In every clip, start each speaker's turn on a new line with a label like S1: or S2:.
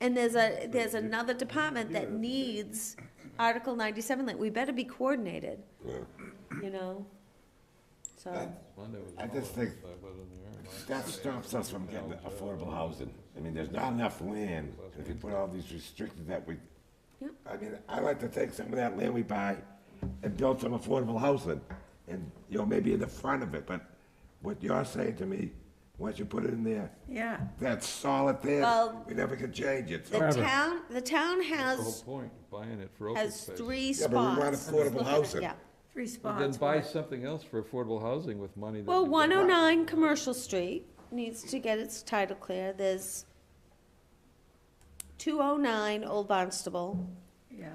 S1: And there's a, there's another department that needs Article ninety-seven, like, we better be coordinated, you know? So,
S2: I just think that stops us from getting affordable housing. I mean, there's not enough land, and if you put all these restrictions that we,
S1: Yep.
S2: I mean, I like to take some of that land we buy and build some affordable housing, and, you know, maybe in the front of it, but what you're saying to me, once you put it in there,
S3: Yeah,
S2: that's solid there,
S1: Well-
S2: we never can change it, so.
S1: the town, the town has,
S4: point, buying it for
S1: has three
S2: Yeah,
S1: spots.
S2: but we want affordable
S1: Looking at-
S2: housing.
S1: Yeah.
S3: three
S4: But then
S3: spots.
S4: buy something else for affordable housing with money that.
S1: Well,
S4: we get.
S1: one oh nine Commercial Street needs to get its title clear, there's two oh nine Old Barnstable,
S3: Yeah,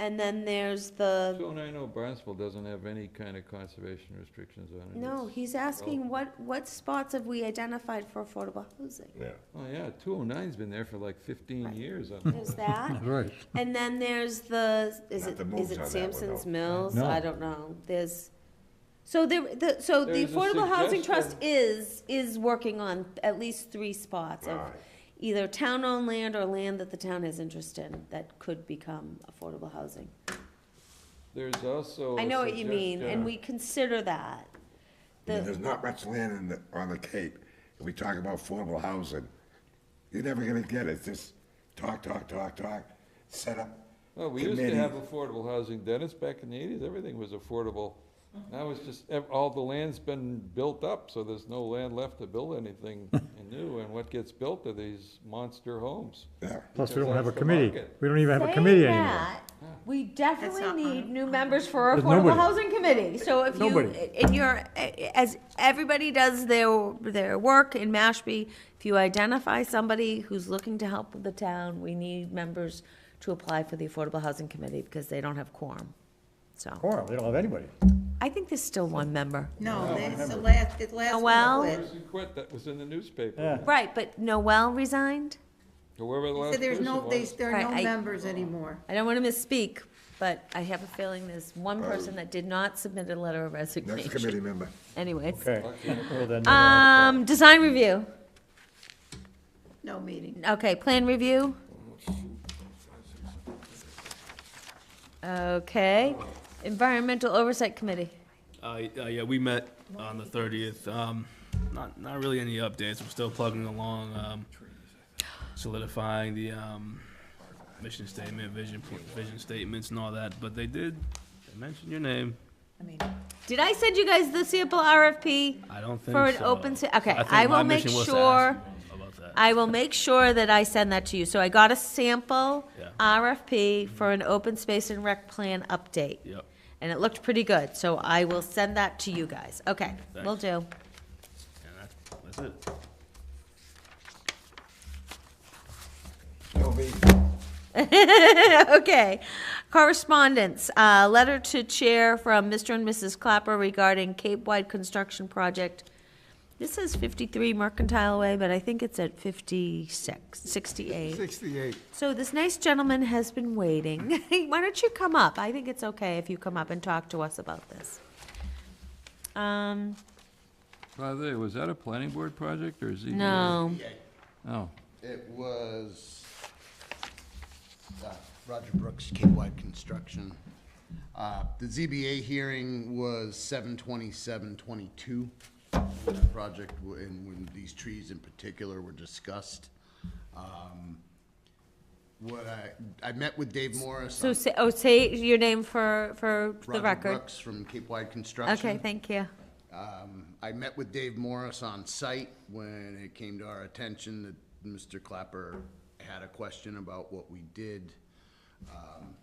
S1: and then there's the,
S4: 290 Barnstable doesn't have any kind of conservation restrictions on
S2: oh
S4: it.
S1: no,
S4: It's-
S1: he's asking what, what spots have we identified for affordable housing?
S2: Yeah.
S4: Oh, yeah, 209's been there for like 15 years. on-
S1: There's that,
S5: Right.
S1: and then there's the, is
S2: Not
S1: it,
S2: the moves
S1: is
S2: on that
S1: it
S2: one,
S1: Sampson's
S2: though.
S1: Mills?
S5: No.
S1: I don't know, there's, so there, the, so the
S4: There's a
S1: Affordable Housing Trust
S4: suggestion.
S1: is, is working on at least three spots of
S2: Right.
S1: either town-owned land or land that the town has interest in that could become affordable housing.
S4: There's also.
S1: I
S4: a
S1: know what you mean,
S4: suggestion-
S1: and we consider that.
S2: I mean,
S1: The-
S2: There's not much land in the, on the Cape. If we talk about affordable housing, you're never gonna get it. It's just talk, talk, talk, talk, set up.
S4: Well, we used to have
S2: committee.
S4: affordable housing, Dennis, back in the 80s, everything was affordable. Now it's just, ev- all the land's been built up, so there's no land left to build anything new. And what gets built are these monster homes.
S2: Yeah,
S5: Plus, we
S4: Because
S5: don't have a
S4: that's the
S5: committee.
S4: market.
S5: We don't even have a
S1: Saying
S5: committee anymore.
S1: that, We
S3: That's not
S1: definitely need
S3: on-
S1: new members for our
S5: There's
S1: affordable
S5: nobody.
S1: housing committee, so if you,
S5: Nobody.
S1: in your, as everybody does their, their work in Mashpee, if you identify somebody who's looking to help with the town, we need members to apply for the affordable housing committee because they don't have quorum, so.
S5: Quorum, they don't have anybody.
S1: I think there's still one member.
S4: Oh,
S3: no, that's the last, the last
S1: Noel?
S3: one quit.
S4: Person quit, that was in the newspaper.
S5: Yeah.
S1: Right, but Noel resigned?
S4: Whoever the last
S3: So
S4: person
S3: there's no, there's,
S4: was.
S3: there are no
S1: Right, I-
S3: members anymore.
S1: I don't want to misspeak, but I have a feeling there's one
S5: Uh,
S1: person that did not submit a letter of
S2: next
S1: resignation.
S2: committee member.
S1: Anyways.
S5: Okay. Well, then, uh,
S1: Um, design review.
S3: No meeting.
S1: Okay, plan review. Okay, environmental oversight committee.
S6: Uh, y- uh, yeah, we met on the thirtieth. Um, not, not really any updates. We're still plugging along, um, solidifying the, um, mission statement, vision, pl- vision statements and all that, but they did, they mentioned your name.
S3: I mean,
S1: Did I send you guys the sample RFP?
S6: I don't think so.
S1: For an open se- okay,
S6: think
S1: I
S6: my
S1: will make
S6: mission was to ask you About that.
S1: I will make sure that I send that to you. So I got a sample
S6: Yeah.
S1: RFP for an open space and rec plan update.
S6: Yep.
S1: And it looked pretty good, so I will send that to you guys. Okay, we will do.
S6: And that's, that's it.
S2: No me.
S1: Okay, correspondence, uh, letter to chair from Mr. and Mrs. Clapper regarding Cape Wide Construction Project. This says fifty-three Mercantile Way, but I think it's at 56, 68. So this nice gentleman has been waiting. Why don't you come up? I think it's okay if you come up and talk to us about this. Um,
S4: By the way, was that a planning board project or is he?
S1: no,
S4: Oh,
S7: It was uh, Roger Brooks, Cape Wide Construction. Uh, The ZBA hearing was seven twenty-seven twenty-two. That project, w- and when these trees in particular were discussed. Um, What I, I met with Dave Morris.
S1: so
S7: on-
S1: say, oh, say your name for, for the
S7: Roger
S1: record.
S7: Brooks from Cape Wide Construction.
S1: Okay, thank you.
S7: Um, I met with Dave Morris on site when it came to our attention that Mr. Clapper had a question about what we did. Um,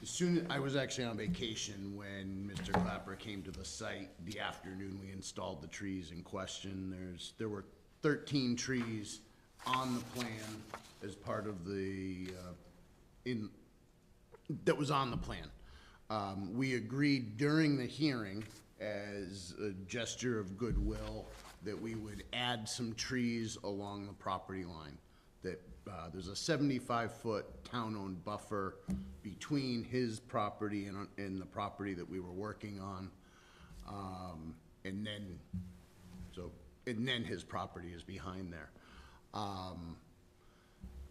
S7: As soon, I was actually on vacation when Mr. Clapper came to the site. The afternoon, we installed the trees in question. There's, there were thirteen trees on the plan as part of the, uh, in, that was on the plan. Um, we agreed during the hearing as a gesture of goodwill that we would add some trees along the property line. That, uh, there's a seventy-five foot town-owned buffer between his property and, and the property that we were working on. Um, and then, so, and then his property is behind there. Um,